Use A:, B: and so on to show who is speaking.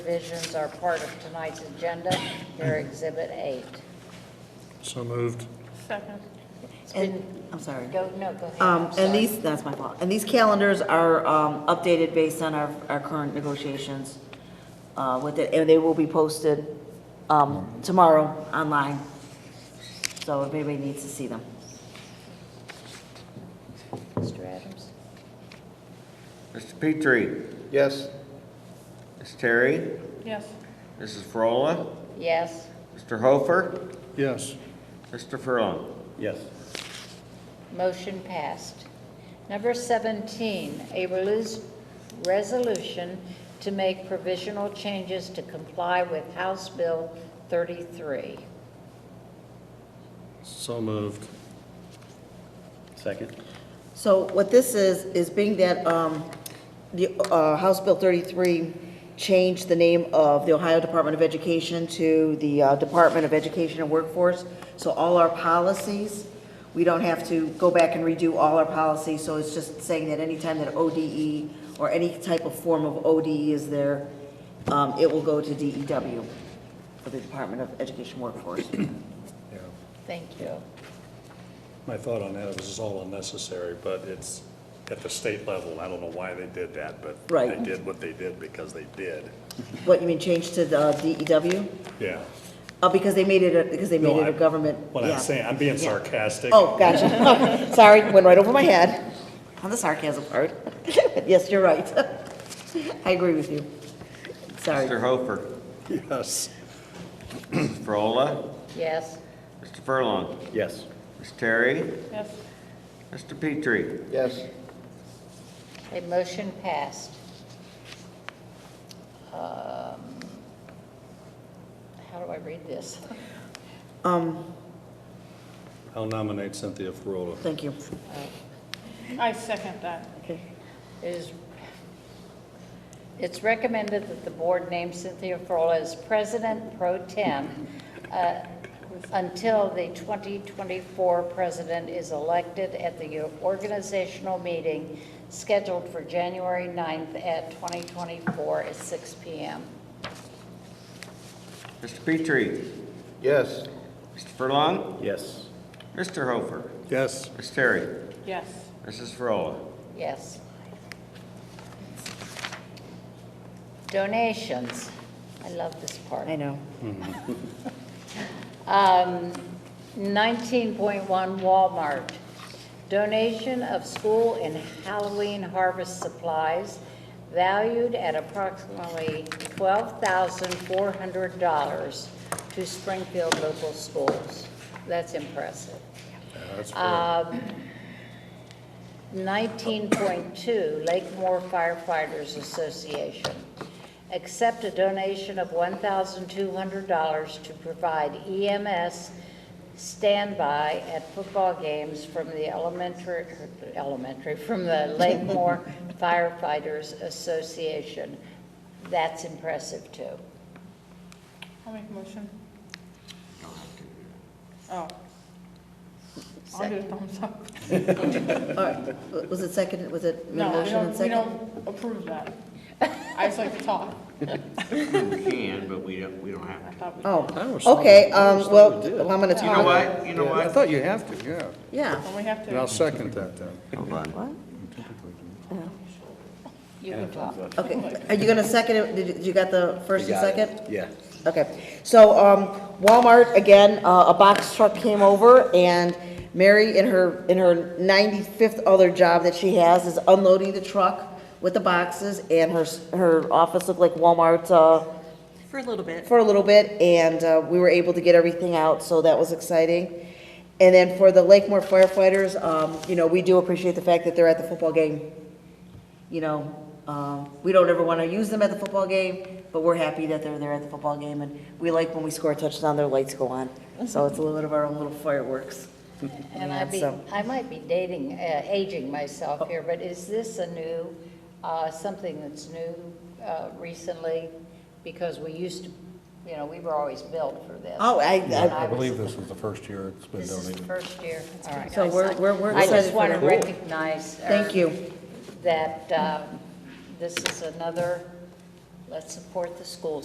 A: Provisions are part of tonight's agenda. They're Exhibit 8.
B: So moved.
C: Second.
D: And, I'm sorry.
A: Go, no, go ahead. I'm
D: Um, and
A: sorry.
D: these, that's my fault. And these calendars are, um, updated based on our, our current negotiations, uh, with it, and they will be posted, um, tomorrow online. So if anybody needs to see them.
A: Mr. Adams?
E: Mr. Petrie,
B: Yes.
E: Ms. Terry,
C: Yes.
E: Mrs. Frola,
A: Yes,
E: Mr. Hofer,
B: Yes.
E: Mr. Furlong.
B: Yes.
A: motion passed. Number 17, a relus- resolution to make provisional changes to comply with House Bill 33.
B: So moved.
E: Second.
D: So what this is, is being that um, the uh, House Bill 33 changed the name of the Ohio Department of Education to the uh, Department of Education and Workforce. So all our policies, we don't have to go back and redo all our policies. So it's just saying that anytime that ODE or any type of form of ODE is there, um, it will go to DEW for the Department of Education Workforce.
B: Yeah.
A: Thank you.
B: My thought on that is it's all unnecessary, but it's at the state level. I don't know why they did that, but
D: Right.
B: they did what they did because they did.
D: What, you mean change to the uh, DEW?
B: Yeah.
D: Uh, because they made it, a- because they
B: No,
D: made it a
B: I-
D: government.
B: What
D: yeah.
B: I'm saying, I'm being
D: Yeah.
B: sarcastic.
D: Oh, gotcha. Sorry, went right over my head. On the sarcasm part. Yes, you're right. I agree with you.
E: Mr.
D: Sorry.
E: Hofer,
B: Yes.
E: Ms. Frola,
A: Yes,
E: Mr. Furlong,
B: Yes.
E: Ms. Terry,
C: Yes.
E: Mr. Petrie.
B: Yes.
A: a motion passed. Um, How do I read this?
D: Um,
B: I'll nominate Cynthia Frola.
D: thank you.
C: I second that.
A: It is, it's recommended that the board name Cynthia Frola as president pro tem uh, until the 2024 president is elected at the organizational meeting scheduled for January 9th at 2024 at 6 PM.
E: Mr. Petrie,
B: Yes.
E: Mr. Furlong,
B: Yes.
E: Mr. Hofer,
B: Yes.
E: Ms. Terry,
C: Yes.
E: Mrs. Frola.
A: Yes. Donations. I love this part.
D: I know.
A: Um, 19.1 Walmart, donation of school and Halloween harvest supplies valued at approximately $12,400 to Springfield local schools. That's impressive.
B: That's
E: Uh,
B: fair.
A: Um, 19.2, Lakemore Firefighters Association. Accept a donation of $1,200 to provide EMS standby at football games from the elementary, elementary, from the Lakemore Firefighters Association. That's impressive, too.
C: I'll make a motion. Oh. I'll do a thumbs up.
D: All right. W- Was it second, was it made
C: No,
D: a
C: we
D: motion and
C: don't, we
D: second?
C: don't approve that. I just like to talk.
E: We can, but we don't, we don't have
C: I
E: to.
C: thought we,
B: I
D: Oh,
B: was sorry.
D: okay,
B: I
D: um,
B: was
D: well,
B: sorry we did.
D: well, I'm gonna
E: You know
D: talk.
E: what, you know
B: I
E: what?
B: thought you have to, yeah.
D: Yeah.
C: don't we have
B: And I'll
C: to,
B: second that then.
E: Hold on.
A: You can talk.
D: Okay. Are you gonna second it? Did you- you got the first and second?
E: Yeah.
D: Okay, so um, Walmart, again, uh, a box truck came over, and Mary, in her, in her 95th other job that she has, is unloading the truck with the boxes, and her, s- her office looked like Walmart uh,
F: For a little bit.
D: for a little bit, and uh, we were able to get everything out, so that was exciting. And then for the Lakemore firefighters, um, you know, we do appreciate the fact that they're at the football game. You know, um, we don't ever want to use them at the football game, but we're happy that they're there at the football game, and we like when we score a touchdown, their lights go on. So it's a little bit of our own little fireworks.
A: And
D: Yeah,
A: I'd be,
D: so-
A: I might be dating, uh, aging myself here, but is this a new, uh, something that's new uh, recently? Because we used to, you know, we were always built for this.
D: Oh, I,
A: And
D: I,
G: I
A: was-
G: believe this was the first year it's been
A: This is the
G: donated.
A: first year, all right.
D: so we're, we're, we're
A: I
D: excited
A: just
D: for
A: want to
D: that.
A: recognize. uh,
D: Thank you.
A: That um, this is uh, another Let's support the schools.